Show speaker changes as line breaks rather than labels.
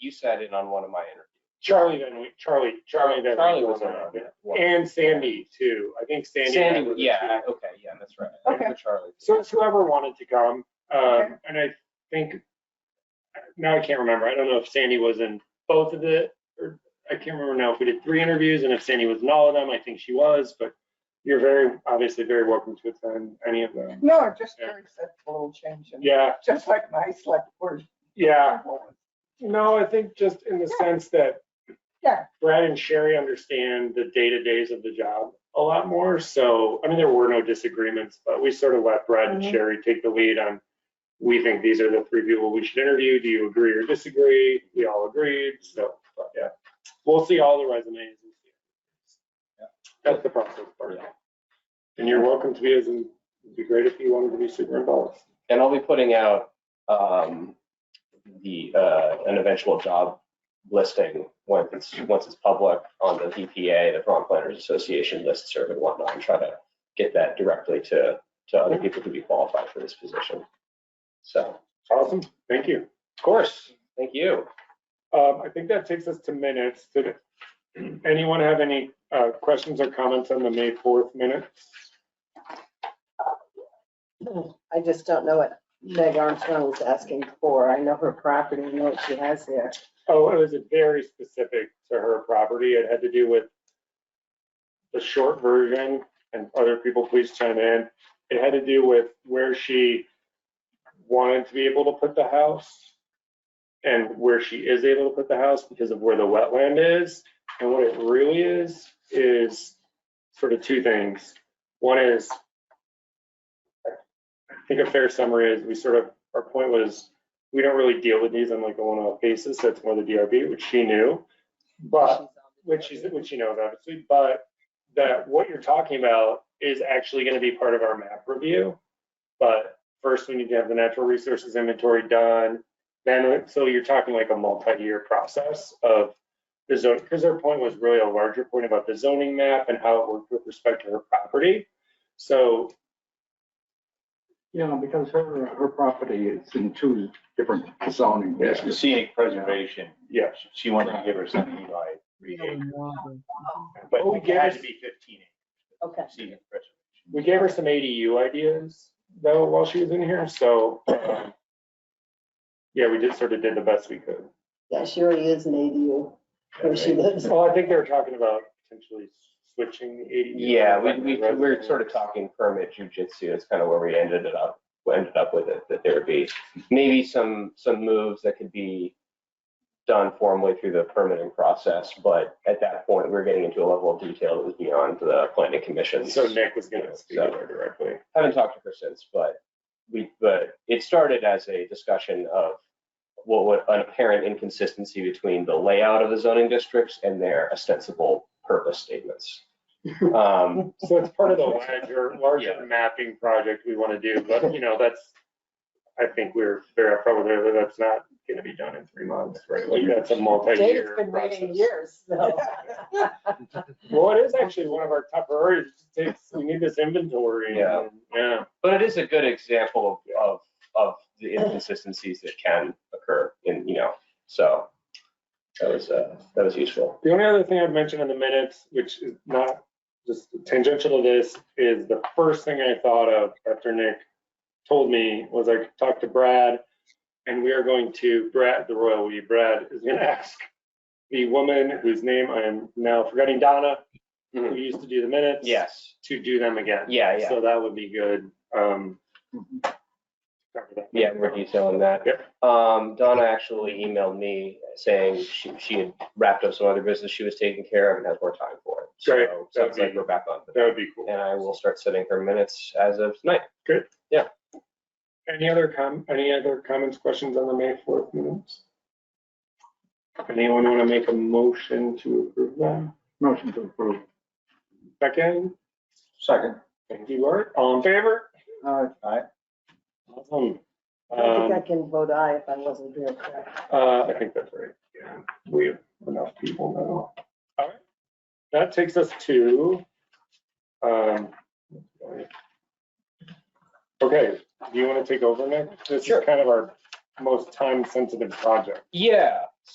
sat in on one of my interviews.
Charlie Van Wee, Charlie, Charlie Van.
Charlie
Winkle
was in
and I
on
did.
that. one.
And Sandy too. I think Sandy.
Sandy,
met
was-
with the
yeah,
two.
okay, yeah, that's right.
Okay.
And Charlie.
So it's whoever wanted to come.
Okay.
Um, and I think, now I can't remember. I don't know if Sandy was in both of the, or I can't remember now if we did three interviews and if Sandy was in all of them. I think she was, but you're very, obviously very welcome to attend any of them.
No, I'm just
Yeah.
curious, that's a little change in,
Yeah,
just like my select board.
yeah.
appointment.
No, I think just in the
Yeah.
sense that
Yeah.
Brad and Sherry understand the day-to-days of the job a lot more. So, I mean, there were no disagreements, but we sort of let Brad and
Mhm.
Sherry take the lead on, we think these are the three people we should interview. Do you agree or disagree? We all agreed. So, but yeah, we'll see all the resumes. and see.
Yeah.
That's the process part. And you're welcome to be as, in- it'd be great if you wanted to be super involved.
And I'll be putting out um, the, uh, an eventual job listing once it's, once it's public on the VPA, the Vermont Planners Association list serve and whatnot, and try to get that directly to, to other people who be qualified for this position. So,
Awesome. Thank you.
of course, thank you.
Um, I think that takes us to minutes. Did anyone have any, uh, questions or comments on the May fourth minute?
I just don't know what Meg Armstrong was asking for. I know her property, I know what she has there.
Oh, it was very specific to her property. It had to do with the short version, and other people, please chime in. It had to do with where she wanted to be able to put the house and where she is able to put the house because of where the wetland is. And what it really is, is sort of two things. One is, I think a fair summary is, we sort of, our point was, we don't really deal with these on like a one-off basis. That's more the DRB, which she knew. But, which is, which she knows obviously, but that what you're talking about is actually gonna be part of our map review. But first, we need to have the natural resources inventory done. Then, so you're talking like a multi-year process of the zone, because her point was really a larger point about the zoning map and how it worked with respect to her property. So
Yeah, because her, her property is in two different zoning
It's
districts.
scenic preservation.
Yeah.
She wanted to give her son Eli three acres, but
Oh,
it had to
yes.
be fifteen
Okay.
acres, scenic preservation.
We gave her some ADU ideas though while she was in here, so um, yeah, we did sort of did the best we could.
Yeah, she already is an ADU where she lives.
Well, I think they were talking about potentially switching the ADU.
Yeah, we, we, we we're sort of talking permit jujitsu. It's kind of where we ended it up, we ended up with it, that there would be maybe some, some moves that could be done formally through the permitting process, but at that point, we we're getting into a level of detail that was beyond the planning commission.
So Nick was gonna speak to her directly.
Haven't talked to her since, but we, but it started as a discussion of what, what an apparent inconsistency between the layout of the zoning districts and their ostensible purpose statements. Um,
So it's part of the larger,
Yeah.
larger mapping project we want to do, but you know, that's, I think we're very upfront with her that that's not gonna be done in three months, right? Like that's a
Dave's
multi-year
been
process.
waiting years, so.
Well, it is actually one of our top priorities. It takes, we need this inventory.
Yeah.
Yeah.
But it is a good example of, of, of the inconsistencies that can occur in, you know, so that was, uh, that was useful.
The only other thing I'd mention in the minutes, which is not just tangential to this, is the first thing I thought of after Nick told me was I talked to Brad and we are going to, Brad, the royal we, Brad is gonna ask the woman whose name I am now forgetting, Donna, who
Mhm.
used to do the minutes.
Yes,
To do them again.
Yeah, yeah. Mm-hmm.
So that would be good. Um. cover that.
yeah, we're detailing that. Um, Donna actually emailed me saying she, she had wrapped up some other business she was taking care of and has more time for it. So
Great.
Sounds
That'd
like
be-
we're back on.
That would be cool.
And I will start setting her minutes as of tonight.
Any other com, any other comments, questions on the May fourth minutes? Anyone want to make a motion to approve them?
Motion to approve.
Second,
Second.
thank you, Art. All in favor?
Uh,
Awesome.
I think I
Um,
can vote aye if I wasn't here. correct?
uh, I think that's right. Yeah, We have enough people now. All right. That takes us to, um, okay, do you want to take over, Nick? This is
Sure.
kind of our most time-sensitive project.
Yeah,